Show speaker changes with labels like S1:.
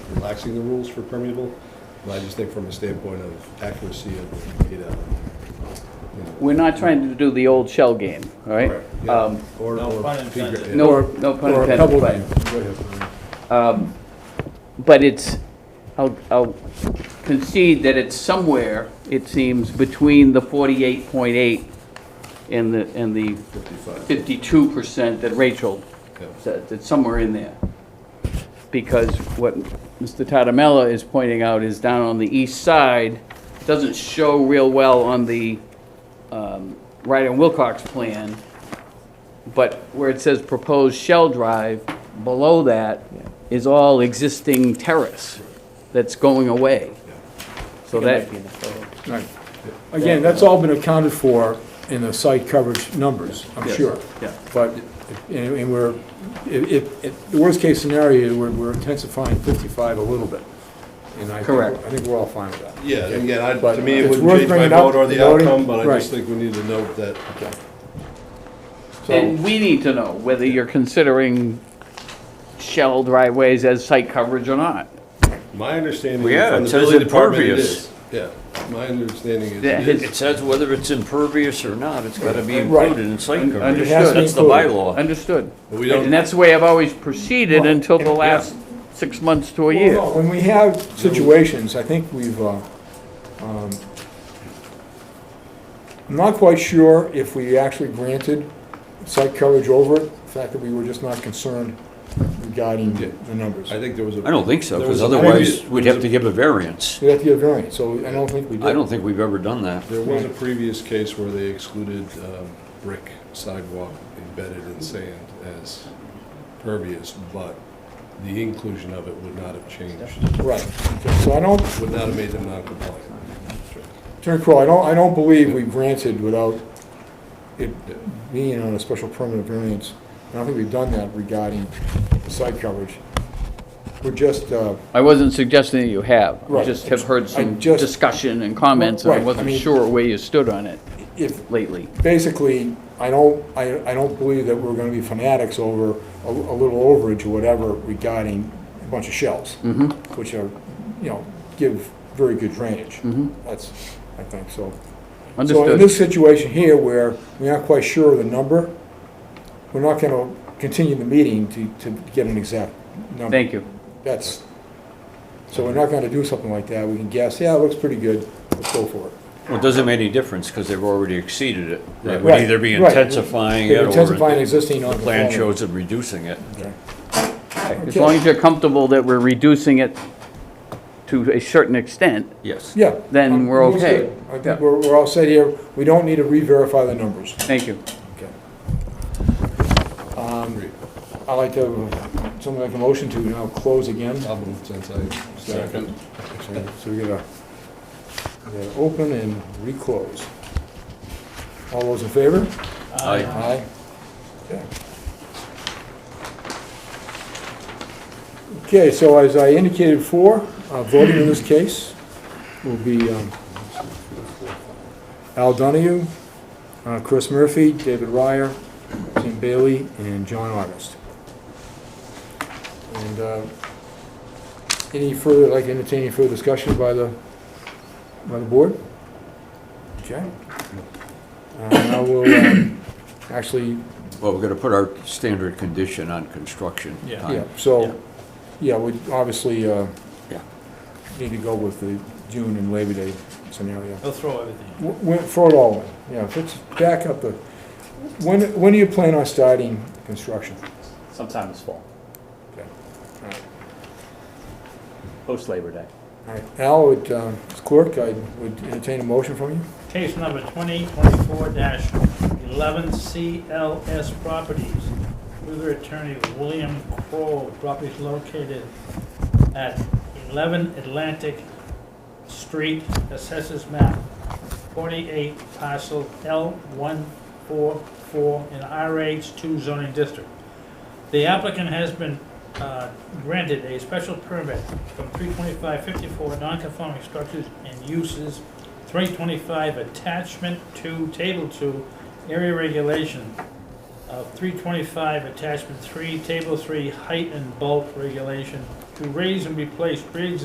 S1: relaxing the rules for permeable, but I just think from a standpoint of accuracy of data. you know,
S2: We're not trying to do the old shell game, all right?
S1: correct, yeah.
S2: Um,
S1: Or-
S3: No
S1: or
S3: pun
S1: figure-
S3: intended.
S2: No, no pun
S1: Or a
S2: intended,
S1: pebble
S2: but-
S1: game. Go ahead.
S2: But it's, I'll, I'll concede that it's somewhere, it seems, between the 48.8 and the, and the
S1: 55.
S2: 52% that Rachel
S1: Yeah.
S2: said, it's somewhere in there. Because what Mr. Tatamella is pointing out is down on the east side, doesn't show real well on the um, Ryder and Wilcox plan, but where it says proposed shell drive, below that is all existing terrace that's going away. So that,
S4: Right. Again, that's all been accounted for in the site coverage numbers, I'm
S2: Yes,
S4: sure.
S2: yeah.
S4: But, and and we're, if, if, the worst-case scenario, we're- we're intensifying 55 a little bit. And I think-
S2: Correct.
S4: I think we're all fine with that.
S1: Yeah, and again, I,
S4: But
S1: to me, it
S4: it's
S1: wouldn't
S4: worth
S1: change my
S4: bringing up,
S1: vote or the
S4: voting,
S1: outcome, but I just
S4: right.
S1: think we need to note that,
S2: and we need to know whether you're considering shell driveways as site coverage or not.
S1: my understanding
S5: Well, yeah,
S1: from
S5: it
S1: the
S5: says
S1: building department, it
S5: impervious.
S1: is. Yeah, my understanding is
S2: Yeah,
S1: it
S2: it's-
S1: is.
S5: It says whether it's impervious or not, it's gotta be
S4: Right.
S5: included in site coverage.
S2: Understood.
S5: That's the bylaw.
S2: Understood.
S1: But we don't-
S2: And that's the way I've always proceeded
S4: Well,
S2: until the last six months to a
S4: Well,
S2: year.
S4: no, When we have situations, I think we've, uh, um, I'm not quite sure if we actually granted site coverage over it, the fact that we were just not concerned regarding
S1: Yeah.
S4: the numbers.
S1: I think there was a.
S5: I don't think so,
S1: There
S5: because
S1: was a
S5: otherwise
S1: previous-
S5: we'd have to give a variance.
S4: We have to get a variance, so I don't think we did.
S5: I don't think we've ever done that.
S1: There was a previous case where they excluded um, brick sidewalk embedded in sand as pervious, but the inclusion of it would not have changed,
S4: Right, Okay, so I don't,
S1: would not have made them non-compliant.
S4: Attorney Crowe, I don't, I don't believe we granted without it being on a special permit of variance. I don't think we've done that regarding the site coverage. We're just, uh,
S2: I wasn't suggesting that you have. I
S4: Right.
S2: just have heard
S4: I
S2: some
S4: just-
S2: discussion and comments, and I
S4: Right, I
S2: wasn't
S4: mean-
S2: sure where you stood on it
S4: if,
S2: lately.
S4: basically, I don't, I, I don't believe that we're gonna be fanatics over a, a little overage or whatever regarding a bunch of shells.
S5: Mm-hmm.
S4: Which are, you know, give very good drainage.
S5: Mm-hmm.
S4: That's, I think, so. So in
S2: Understood.
S4: this situation here, where we're not quite sure of the number, we're not gonna continue the meeting to, to get an exact number.
S2: Thank you.
S4: That's, so we're not gonna do something like that, we can guess, yeah, it looks pretty good, let's go for it.
S5: Well, it doesn't make any difference, because they've already exceeded it. They would
S4: Right,
S5: either be
S4: right.
S5: intensifying
S4: They're
S5: it,
S4: intensifying
S5: or
S4: existing
S5: the plan
S4: non-conforming.
S5: shows them reducing it.
S4: Okay.
S2: As long as you're comfortable that we're reducing it to a certain extent,
S5: Yes.
S4: Yeah.
S2: Then
S4: Um,
S2: we're
S4: we'll
S2: okay.
S4: see. I
S2: Yeah.
S4: think we're, we're all set here. We don't need to re-verify the numbers.
S2: thank you.
S4: Okay. Um, I'd like to, have someone make a motion to now close again.
S1: I'll move since I second.
S4: So so we gotta, we gotta open and re-close. All those in favor?
S5: Aye.
S4: Aye. Okay. Okay, so as I indicated before, uh, voting in this case will be um, Al Donahue, uh, Chris Murphy, David Ryer, Tim Bailey, and John August. And uh, any further, like entertaining further discussion by the, by the board? Okay. Uh, I will um, actually
S5: Well, we're gonna put our standard condition on construction
S3: Yeah.
S4: Yeah,
S5: time.
S4: so, yeah, we obviously uh,
S5: Yeah.
S4: need to go with the June and Labor Day scenario.
S3: He'll throw everything.
S4: W- When, for it all, yeah, let's back up the, when, when do you plan on starting construction?
S6: sometime this fall,
S4: All right.
S6: post Labor Day.
S4: All right, Al, would, um, as clerk, I would entertain a motion from you.
S3: Case number 2024-11 CLS Properties. With attorney William Crowe, property located at 11 Atlantic Street, assessors map 48, parcel L144 in RH2 zoning district. The applicant has been uh, granted a special permit from 32554 non-conforming structures and uses, 325 attachment 2, table 2, area regulation of 325 attachment 3, table 3, height and bulk regulation, to raise and replace pre-existing